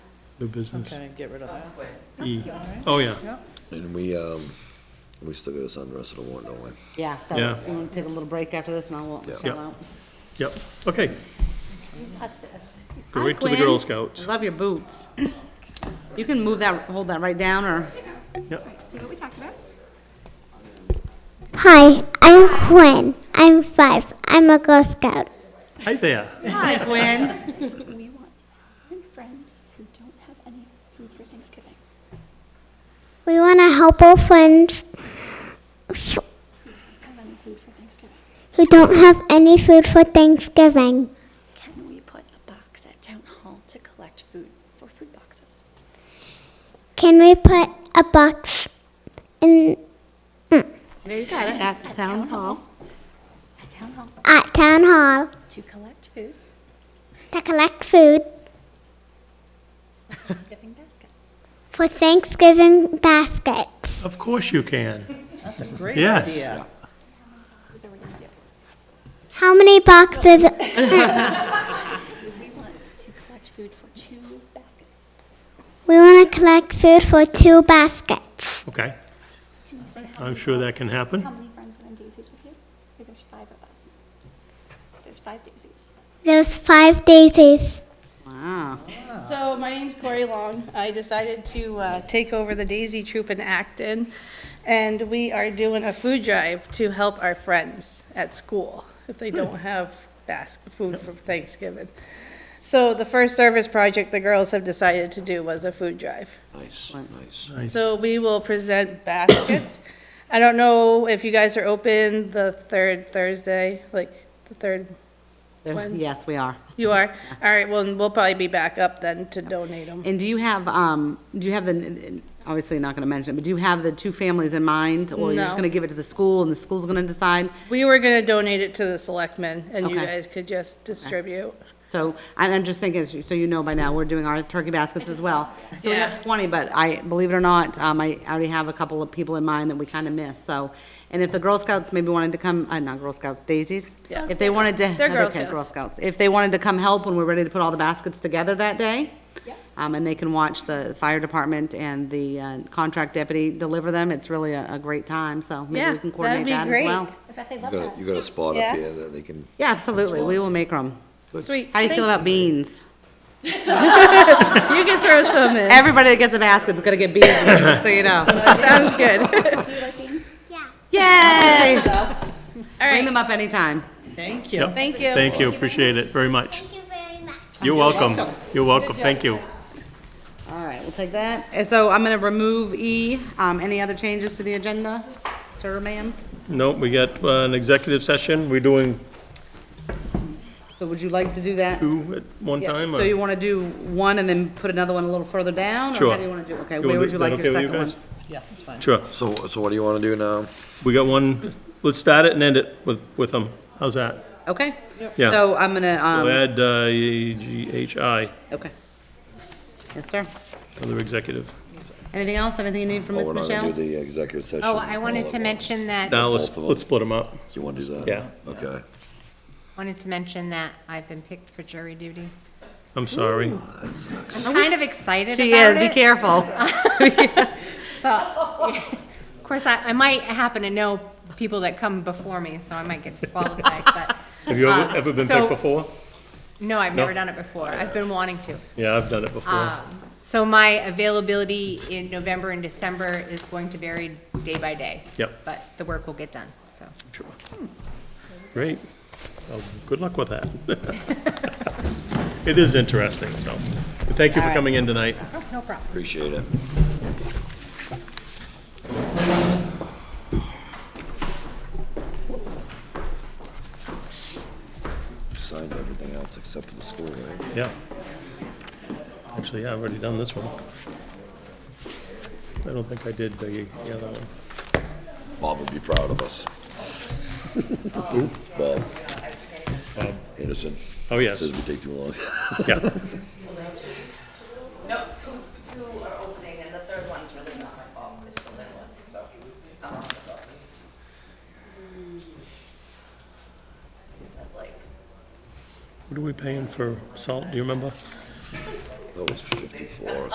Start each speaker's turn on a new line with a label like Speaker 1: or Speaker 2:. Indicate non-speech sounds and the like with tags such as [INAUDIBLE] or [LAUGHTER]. Speaker 1: New business.
Speaker 2: Okay, get rid of that.
Speaker 1: E.
Speaker 2: All right.
Speaker 1: Oh, yeah.
Speaker 2: Yep.
Speaker 3: And we, um, we still got us on the rest of the warrant, don't we?
Speaker 4: Yeah, so
Speaker 1: Yeah.
Speaker 4: you want to take a little break after this and I won't
Speaker 3: Yeah.
Speaker 4: shout
Speaker 1: Yeah.
Speaker 4: out.
Speaker 1: Yep, okay. Go
Speaker 4: Hi,
Speaker 1: right to the
Speaker 4: Quinn.
Speaker 1: Girl Scouts.
Speaker 4: I Love your boots. You can move that, hold that right down or,
Speaker 5: See what we talked about?
Speaker 6: Hi, I'm Quinn. I'm five. I'm a Girl Scout.
Speaker 1: Hi there.
Speaker 4: hi [LAUGHS] Quinn.
Speaker 5: We want your friends who don't have any food for Thanksgiving.
Speaker 6: We want to help our friends
Speaker 5: Have any food for Thanksgiving.
Speaker 6: who don't have any food for Thanksgiving.
Speaker 5: Can we put a box at town hall to collect food for food boxes?
Speaker 6: Can we put a box in
Speaker 4: There you got it, at the town hall.
Speaker 5: At town hall
Speaker 6: at town hall
Speaker 5: to collect food,
Speaker 6: to collect food
Speaker 5: Thanksgiving baskets.
Speaker 6: for Thanksgiving baskets?
Speaker 1: Of course you can.
Speaker 2: That's a great
Speaker 1: Yes.
Speaker 2: idea.
Speaker 5: Those are what we do.
Speaker 6: How many boxes?
Speaker 5: We want to collect food for two baskets.
Speaker 6: We want to collect food for two baskets.
Speaker 1: Okay,
Speaker 5: Can you say how
Speaker 1: I'm
Speaker 5: many
Speaker 1: sure
Speaker 5: fri-
Speaker 1: that can happen.
Speaker 5: How many friends are in Daisy's with you? Say there's five of us. There's five Daisies.
Speaker 6: There's five daisies.
Speaker 4: Wow.
Speaker 7: So my name's Corey Long. I decided to uh, take over the Daisy Troop in Acton, and we are doing a food drive to help our friends at school if they don't have bas- food for Thanksgiving. So the first service project the girls have decided to do was a food drive.
Speaker 3: Nice, nice.
Speaker 1: Nice.
Speaker 7: So we will present baskets. I don't know if you guys are open the third Thursday, like the third,
Speaker 4: There's- Yes, we are.
Speaker 7: you are? All right, well, we'll probably be back up then to donate them.
Speaker 4: And do you have, um, do you have the, obviously not gonna mention it, but do you have the two families in mind? Or you're just
Speaker 7: No.
Speaker 4: gonna give it to the school and the school's gonna decide?
Speaker 7: We were gonna donate it to the selectmen, and you
Speaker 4: Okay.
Speaker 7: guys could just distribute.
Speaker 4: So, and I'm just thinking, so so you know by now, we're doing our turkey baskets as well. So we
Speaker 7: Yeah.
Speaker 4: have twenty, but I, believe it or not, um, I already have a couple of people in mind that we kind of missed, so. And if the Girl Scouts maybe wanted to come, uh, not Girl Scouts, Daisies?
Speaker 7: Yeah.
Speaker 4: If they wanted to.
Speaker 7: They're Girl
Speaker 4: okay,
Speaker 7: Scouts.
Speaker 4: Girl Scouts. If they wanted to come help when we're ready to put all the baskets together that day.
Speaker 5: Yeah.
Speaker 4: Um, and they can watch the fire department and the uh, contract deputy deliver them. It's really a, a great time, so maybe
Speaker 7: Yeah,
Speaker 4: we can
Speaker 7: that'd
Speaker 4: coordinate
Speaker 7: be
Speaker 4: that as
Speaker 7: great.
Speaker 4: well.
Speaker 5: I bet they
Speaker 3: You
Speaker 5: love
Speaker 3: got,
Speaker 5: that.
Speaker 3: a- you got a spot
Speaker 7: Yeah.
Speaker 3: up here that they can,
Speaker 4: Yeah, absolutely. We will make them.
Speaker 7: Sweet.
Speaker 4: How do you feel about beans?
Speaker 7: You can throw some in.
Speaker 4: Everybody that gets a basket is gonna get beaten, just so
Speaker 3: [LAUGHS]
Speaker 4: you know.
Speaker 7: [LAUGHS] Sounds good.
Speaker 5: Do you like beans?
Speaker 6: Yeah.
Speaker 4: Yay!
Speaker 7: All
Speaker 4: Bring
Speaker 7: right,
Speaker 4: them up anytime.
Speaker 2: Thank you.
Speaker 7: [LAUGHS] thank you.
Speaker 1: Thank you, appreciate it very much.
Speaker 6: Thank you very much.
Speaker 1: You're welcome. You're welcome, thank you.
Speaker 4: All right, we'll take that. And so I'm gonna remove E. Um, any other changes to the agenda, sir, ma'ams?
Speaker 1: Nope, we got uh, an executive session. We're doing
Speaker 4: So would you like to do that?
Speaker 1: two at one
Speaker 4: Yeah,
Speaker 1: time? uh,
Speaker 4: So
Speaker 1: or-
Speaker 4: you wanna do one and then put another one a little further down? Or
Speaker 1: Sure.
Speaker 4: how do you wanna do, okay,
Speaker 1: wanna
Speaker 4: where would
Speaker 1: do-
Speaker 4: you
Speaker 1: that
Speaker 4: like your
Speaker 1: okay with you
Speaker 4: second one?
Speaker 1: guys?
Speaker 2: Yeah, it's fine.
Speaker 1: Sure,
Speaker 3: so, so what do you wanna do now?
Speaker 1: we got one, let's start it and end it with, with them. How's that?
Speaker 4: Okay.
Speaker 1: Yeah.
Speaker 4: So I'm gonna,
Speaker 1: We'll
Speaker 4: um,
Speaker 1: add uh, AGHI,
Speaker 4: okay. Yes, sir.
Speaker 1: another executive.
Speaker 4: Anything else? Anything you need from
Speaker 3: Oh,
Speaker 4: Miss
Speaker 3: we're not
Speaker 4: Michelle?
Speaker 3: gonna do the executive session.
Speaker 8: Oh, I wanted to
Speaker 3: all at once.
Speaker 8: mention that,
Speaker 1: Now,
Speaker 3: Both
Speaker 1: let's,
Speaker 3: of 'em.
Speaker 1: let's split them up.
Speaker 3: You wanna do that?
Speaker 1: Yeah.
Speaker 3: Okay.
Speaker 8: wanted to mention that I've been picked for jury duty.
Speaker 1: I'm sorry.
Speaker 8: I'm kind of excited
Speaker 4: She
Speaker 8: about
Speaker 4: is, be
Speaker 8: it.
Speaker 4: careful.
Speaker 8: So, [LAUGHS] of course, I, I might happen to know people that come before me, so I might get disqualified, but
Speaker 1: [LAUGHS] Have you
Speaker 8: Um,
Speaker 1: ever, ever been
Speaker 8: so-
Speaker 1: picked before?
Speaker 8: no, I've
Speaker 1: No.
Speaker 8: never done it before. I've been wanting to. Um,
Speaker 1: Yeah, I've done it before.
Speaker 8: Ah. So my availability in November and December is going to vary day by day.
Speaker 1: Yep.
Speaker 8: But the work will get done, so.
Speaker 1: Sure. Great. Well, Good luck with that. [LAUGHS] It is interesting, so. But Thank you for coming in tonight.
Speaker 8: No problem.
Speaker 3: Appreciate it. Signed everything else except for the school, right?
Speaker 1: Yeah. Actually, yeah, I've already done this one. I don't think I did the the other one.
Speaker 3: Bob would be proud of us. Bob. Anderson.
Speaker 1: Oh, yes,
Speaker 3: Says we take too long. [LAUGHS]
Speaker 1: yeah.
Speaker 9: No, two, two are opening, and the third one's really not my fault, it's the little one, so. I'm on the phone. Is that like?
Speaker 1: What are we paying for salt, do you remember?
Speaker 3: That was fifty-four